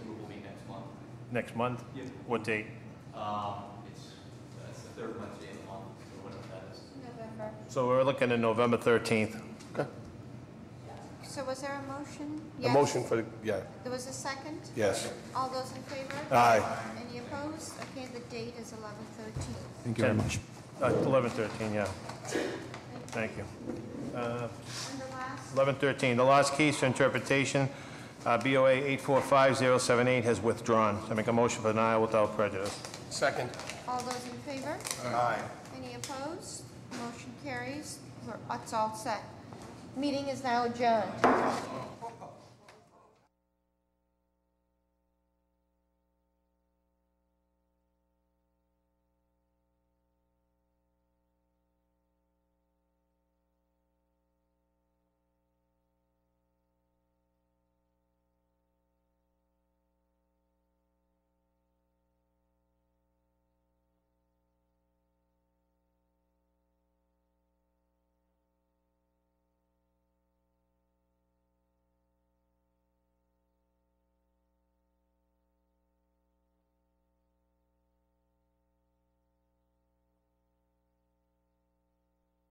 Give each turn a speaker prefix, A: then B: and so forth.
A: next month?
B: Yeah.
A: What date?
B: Um, it's, it's the third Wednesday in the month, so whatever that is.
C: November.
A: So we're looking at November 13th.
D: Okay.
C: So was there a motion?
D: A
C: Yes.
D: motion for, the yeah,
C: There was a second?
D: yes.
C: All those in favor?
D: Aye.
C: Any opposed? Okay, the date is eleven thirteen.
E: Thank you very
A: Ten.
E: much.
A: Uh, 11/13, yeah. Thank you.
C: And the last,
A: 11/13, the last case for interpretation, uh, BOA 845-078 has withdrawn. I make a motion for denial without prejudice.
D: Second.
C: all those in favor?
D: Aye.
C: Any opposed? Motion carries. We're, it's all set. Meeting is now adjourned.